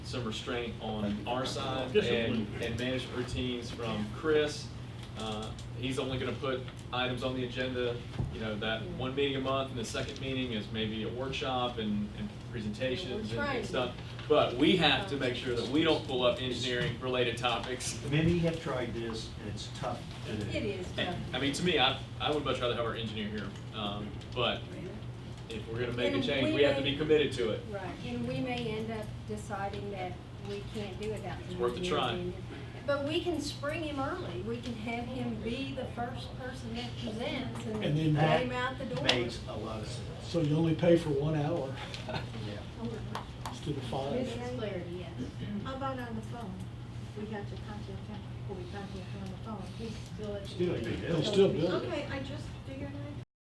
some restraint on our side and, Discipline. and management routines from Chris. Uh, He's only gonna put items on the agenda, you know, that one meeting a month, and the second meeting is maybe a workshop and, and presentations and- trying. and stuff. But we have to make sure that we don't pull up engineering-related topics. Many have tried this, and it's tough to do. It is tough. And, I mean, to me, I, I would much rather have our engineer here, um, but if we're gonna make a And change, we we have to may- be committed to it. Right, and we may end up deciding that we can't do it that. It's worth a try. But we can spring him early, we can have him be the first person that presents and And then let him out the door. Makes a lot of sense. So you only pay for one hour Yeah. instead of five. Mrs. Flaherty, yes. How about on the phone? We got to contact him, or we contact him on the phone, he's still at. the- Still, it'd be good. It'll still do it. Okay, I just figured I'd